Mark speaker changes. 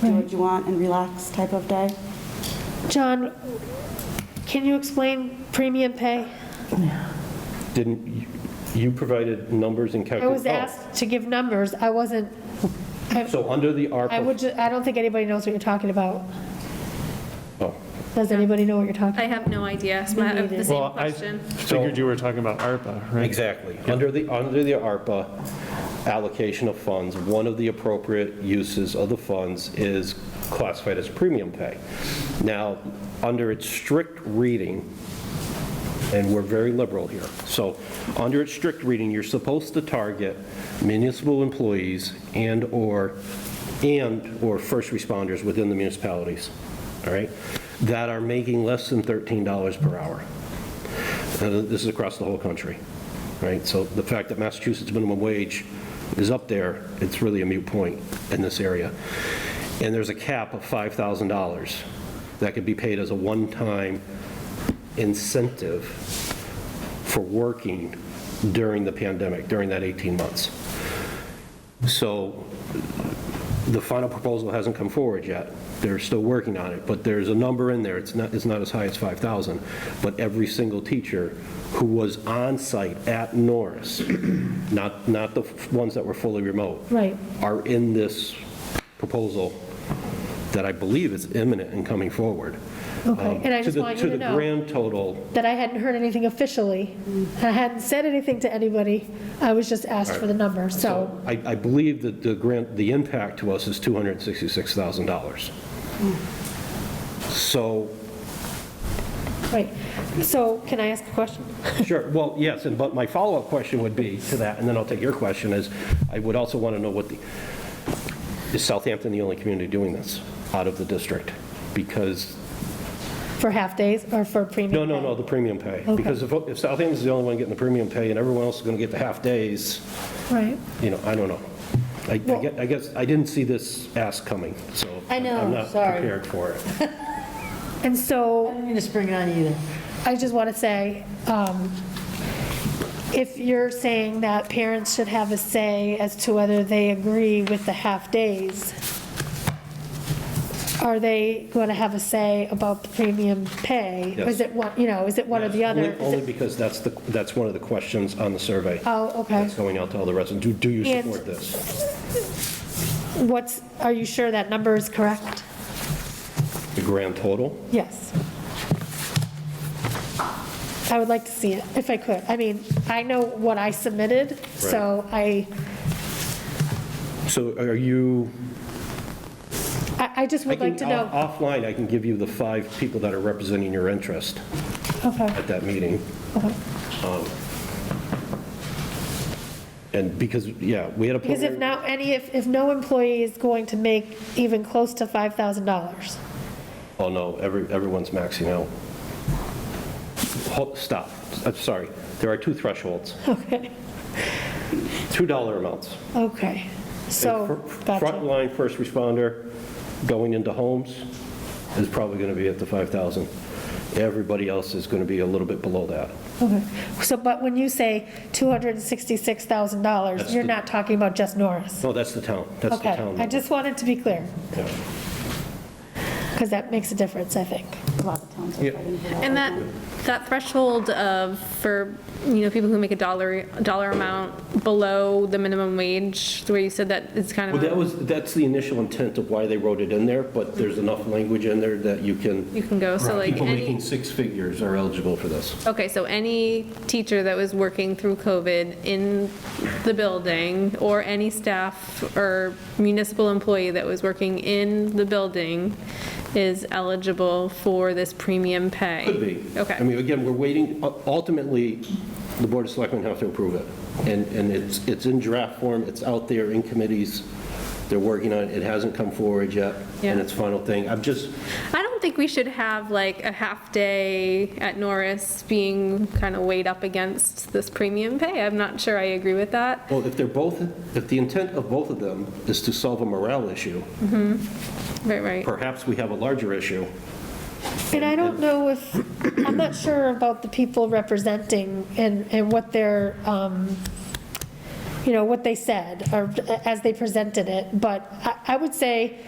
Speaker 1: do what you want and relax type of day.
Speaker 2: John, can you explain premium pay?
Speaker 3: Didn't, you- you provided numbers and
Speaker 2: I was
Speaker 3: calculations? Oh,
Speaker 2: asked to give numbers, I wasn't, I
Speaker 3: So under the ARPA.
Speaker 2: I would, ju- I don't think anybody knows what you're talking about.
Speaker 3: Oh.
Speaker 2: Does anybody know what you're talking?
Speaker 4: I have no idea. It's my,
Speaker 2: neither.
Speaker 4: the same
Speaker 5: Well, I
Speaker 4: question.
Speaker 5: figured you were talking about ARPA, right?
Speaker 3: Exactly. Under the, under the ARPA allocation of funds, one of the appropriate uses of the funds is classified as premium pay. Now, under its strict reading, and we're very liberal here, so under its strict reading, you're supposed to target municipal employees and/or, and/or first responders within the municipalities, all right, that are making less than $13 per hour. Uh, This is across the whole country, right? So the fact that Massachusetts minimum wage is up there, it's really a moot point in this area. And there's a cap of $5,000 that could be paid as a one-time incentive for working during the pandemic, during that 18 months. So the final proposal hasn't come forward yet. They're still working on it, but there's a number in there. It's not, it's not as high as 5,000, but every single teacher who was on site at Norris, not, not the ones that were fully remote.
Speaker 2: Right.
Speaker 3: Are in this proposal that I believe is imminent and coming forward. Um,
Speaker 2: Okay, and I
Speaker 3: To
Speaker 2: just
Speaker 3: the-
Speaker 2: want you to
Speaker 3: To the
Speaker 2: know
Speaker 3: grand total,
Speaker 2: that I hadn't heard anything officially. I hadn't said anything to anybody, I was just asked for the number, so,
Speaker 3: I, I believe that the grant, the impact to us is $266,000. So
Speaker 2: right. So can I ask a question?
Speaker 3: Sure, well, yes, and, but my follow-up question would be to that, and then I'll take your question, is I would also want to know what the, is Southampton the only community doing this out of the district? Because,
Speaker 2: For half-days or for premium?
Speaker 3: no, no,
Speaker 2: pay?
Speaker 3: no, the premium pay.
Speaker 2: Okay.
Speaker 3: Because if if Southampton's the only one getting the premium pay and everyone else is going to get the half-days,
Speaker 2: Right.
Speaker 3: you know, I don't know. I- I
Speaker 2: Well-
Speaker 3: guess, I guess, I didn't see this ask coming, so.
Speaker 6: I know,
Speaker 3: I'm
Speaker 6: sorry.
Speaker 3: not prepared for it.
Speaker 2: And so.
Speaker 6: I didn't mean to spring it on you either.
Speaker 2: I just want to say, um, if you're saying that parents should have a say as to whether they agree with the half-days, are they going to have a say about the premium pay? Or Is
Speaker 3: Yes.
Speaker 2: it one, you know, is it one or the other?
Speaker 3: Only-
Speaker 2: Is
Speaker 3: Only
Speaker 2: it-
Speaker 3: because that's the, that's one of the questions on the survey
Speaker 2: Oh, okay.
Speaker 3: that's going out to all the residents. Do, do you
Speaker 2: And-
Speaker 3: support this?
Speaker 2: What's, are you sure that number is correct?
Speaker 3: The grand total?
Speaker 2: Yes. I would like to see it, if I could. I mean, I know what I submitted, so I,
Speaker 3: So are you?
Speaker 2: I I just
Speaker 3: I
Speaker 2: would like to
Speaker 3: can-
Speaker 2: know.
Speaker 3: off- Offline, I can give you the five people that are representing your interest
Speaker 2: Okay.
Speaker 3: at that meeting. Um, And because, yeah, we had a.
Speaker 2: Because if now, any, if, if no employee is going to make even close to $5,000,
Speaker 3: Oh, no, every, everyone's maxing out. Hold- Stop, I'm sorry. There are two thresholds.
Speaker 2: okay,
Speaker 3: $2 amounts.
Speaker 2: okay, so, gotcha,
Speaker 3: Frontline first responder going into homes is probably going to be at the 5,000. Everybody else is going to be a little bit below that.
Speaker 2: okay. So, but when you say $266,000, you're
Speaker 3: the-
Speaker 2: not talking about just Norris?
Speaker 3: No, Oh, that's the town, that's the
Speaker 2: Okay,
Speaker 3: town.
Speaker 2: I just wanted to be clear,
Speaker 3: Yeah.
Speaker 2: because that makes a difference, I think.
Speaker 1: A lot of towns are fighting for that.
Speaker 4: And that, that threshold of, for, you know, people who make a dollar, dollar amount below the minimum wage, the way you said that, it's kind
Speaker 3: Well,
Speaker 4: of,
Speaker 3: that
Speaker 4: a-
Speaker 3: was, that's the initial intent of why they wrote it in there, but there's enough language in there that you can,
Speaker 4: you can go, so like
Speaker 3: people making
Speaker 4: any,
Speaker 3: six figures are eligible for this.
Speaker 4: okay, so any teacher that was working through COVID in the building, or any staff or municipal employee that was working in the building is eligible for this premium pay?
Speaker 3: Could be.
Speaker 4: Okay.
Speaker 3: I mean, again, we're waiting, u- ultimately, the Board of Selectmen have to approve it. And, and it's, it's in draft form, it's out there in committees, they're working on it, it hasn't come forward yet, and
Speaker 4: Yeah.
Speaker 3: it's final thing. I'm just,
Speaker 4: I don't think we should have like a half day at Norris being kind of weighed up against this premium pay. I'm not sure I agree with that.
Speaker 3: well, if they're both, if the intent of both of them is to solve a morale issue,
Speaker 4: Right, right.
Speaker 3: perhaps we have a larger issue.
Speaker 2: And I don't know if, I'm not sure about the people representing and, and what their, um, you know, what they said, or as they presented it, but I, I would say